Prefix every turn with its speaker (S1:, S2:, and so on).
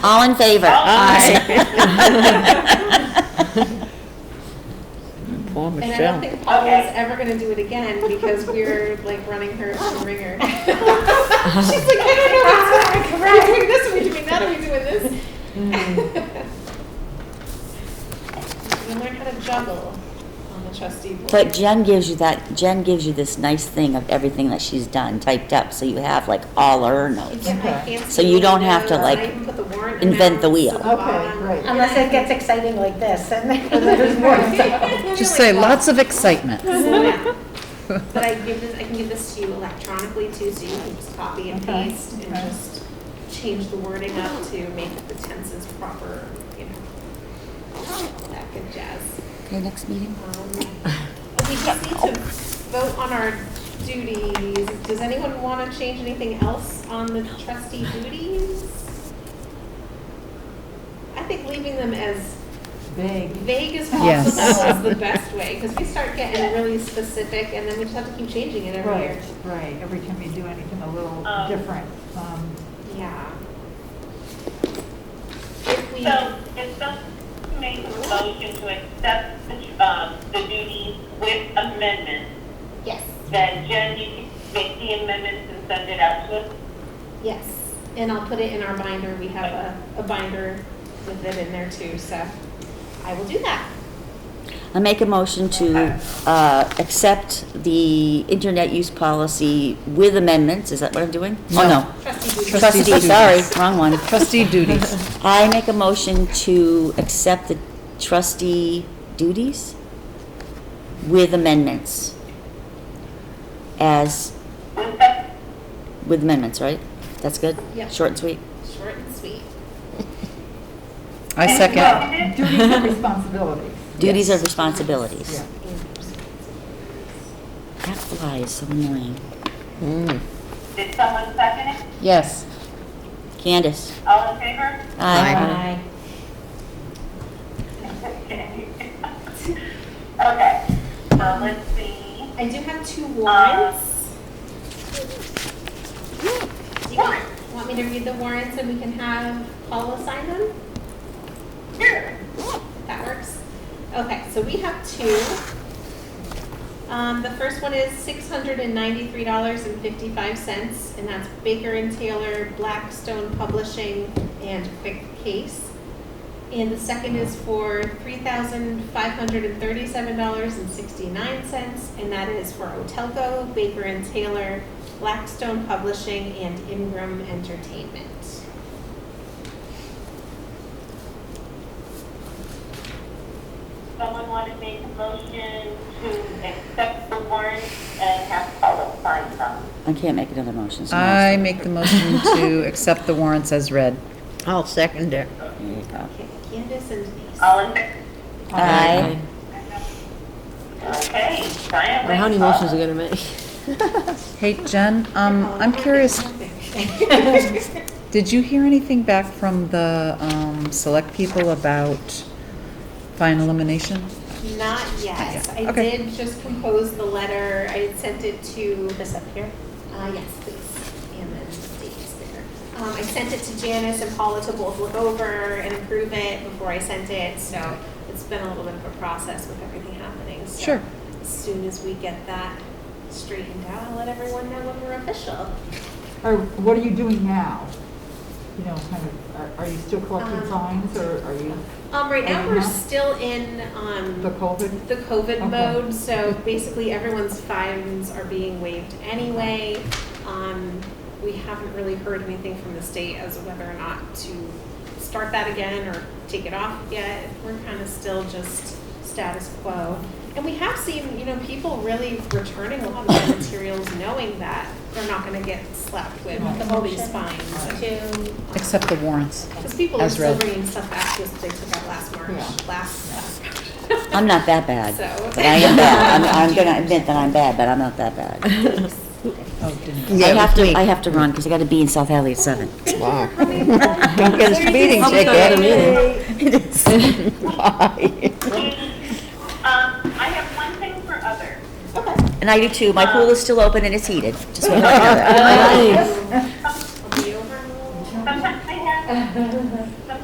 S1: All in favor?
S2: Poor
S3: And I don't
S2: Michelle.
S3: think Paula's ever gonna do it again because we're like running her to the ringer. She's like, I don't know, what's going on. are we doing this, are we doing that, are we doing this? You learn how to juggle on the trustee board.
S1: But Jen gives you that, Jen gives you this nice thing of everything that she's done typed up, so you have like all her
S3: I
S1: notes.
S3: get my fancy
S1: So you don't have to,
S3: windows, I
S1: like,
S3: even put warrant
S1: invent
S3: amounts
S1: the wheel.
S3: at the
S4: Okay,
S3: bottom.
S4: great.
S5: Unless it gets exciting like this, and then there's more.
S2: Just say lots of excitement.
S3: But I give this, I can give this to you electronically too, so you can just copy and
S5: Okay,
S3: paste and just change the wording up to make the tenses proper, you know. all That good jazz.
S1: Okay, next meeting?
S3: Um, We just need to vote on our duties. Does anyone want to change anything else on the trustee duties? I think leaving them as
S4: Big.
S3: vague as
S2: Yes.
S3: possible is the best way, because we start getting really specific, and then we just have to keep changing it every
S4: Right,
S3: year.
S4: right, every time you do anything a little
S6: Um,
S4: different. um,
S3: Yeah. If we,
S6: So if someone makes a motion to accept the, um, the duties with amendments,
S3: yes,
S6: then Jen, you can make the amendments and send it out to us.
S3: yes, and I'll put it in our binder, we have a, a binder with it in there too, so I will do that.
S1: I make a motion to, uh, accept the internet use policy with amendments, is that what I'm doing? Oh,
S2: No.
S1: no.
S3: Trustee duties.
S2: Trustee
S1: Trustee,
S2: duties.
S1: sorry, wrong one.
S2: Trustee duties.
S1: I make a motion to accept the trustee duties with amendments. As,
S6: Was that,
S1: with amendments, right? That's good?
S3: Yeah.
S1: Short and sweet?
S3: Short and sweet.
S2: I second.
S6: second.
S4: Duties and responsibilities.
S1: Duties are
S4: Yeah.
S1: responsibilities. That fly is so annoying.
S6: Did someone second it?
S2: Yes.
S1: Candace?
S6: All in favor?
S1: Aye.
S6: Okay. Okay, so let's see.
S3: I do have two warrants. Do you want, want me to read the warrants and we can have Paula sign them?
S6: Here.
S3: That works. Okay, so we have two. Um, the first one is six hundred and ninety-three dollars and fifty-five cents, and that's Baker and Taylor, Blackstone Publishing, and Quick Case. And the second is for three thousand five hundred and thirty-seven dollars and sixty-nine cents, and that is for Otelco, Baker and Taylor, Blackstone Publishing, and Ingram Entertainment.
S6: Someone want to make a motion to accept the warrants and have Paula sign them?
S1: I can't make another motion. so
S2: I make the motion to accept the warrants as read.
S7: I'll second it.
S1: There you go.
S3: Okay, Candace and Denise.
S2: Um,
S6: All in favor?
S1: Aye.
S6: Okay, Brian.
S7: How many
S6: Paula.
S7: motions are gonna make?
S2: Hey, Jen, um, I'm curious, did you hear anything back from the, um, select people about fine elimination?
S3: Not yet.
S2: Not yet.
S3: I
S2: Okay.
S3: did just compose the letter. I had sent it to. This up here? Uh, yes, please. And then the date is there. Um, I sent it to Janice and Paula to both look over and approve it before I sent it. So it's been a little bit of a process with everything happening. So
S2: Sure.
S3: As soon as we get that straightened out, I'll let everyone know when we're official.
S4: Or what are you doing now? You know, kind of, are- are you still collecting
S3: Um,
S4: signs or are you
S3: Um, right now, we're
S4: Uh-huh.
S3: still in, um.
S4: the COVID?
S3: the COVID
S4: Okay.
S3: mode, so basically everyone's fines are being waived anyway. Um, we haven't really heard anything from the state as to whether or not to start that again or take it off yet. We're kind of still just status quo. And we have seen, you know, people really returning a lot of their materials knowing that they're not gonna get slapped with all these fines.
S5: Two.
S2: Accept the warrants.
S3: Because people are
S2: As
S3: still
S2: read.
S3: bringing stuff back just they took out last March,
S4: Yeah.
S3: last,
S1: I'm not that bad.
S3: So-
S1: But I am bad. I'm, I'm gonna admit that I'm bad, but I'm not that bad.
S2: Oh, didn't.
S1: I have to, I have to run, because I gotta be in South Hadley at seven.
S2: Don't get us meeting ticket.
S6: Um, I have one thing for other.
S1: And I do too. My pool is still open and it's heated. Just want you to know that.
S7: Nice.
S3: I'll be over.
S6: Sometimes I have,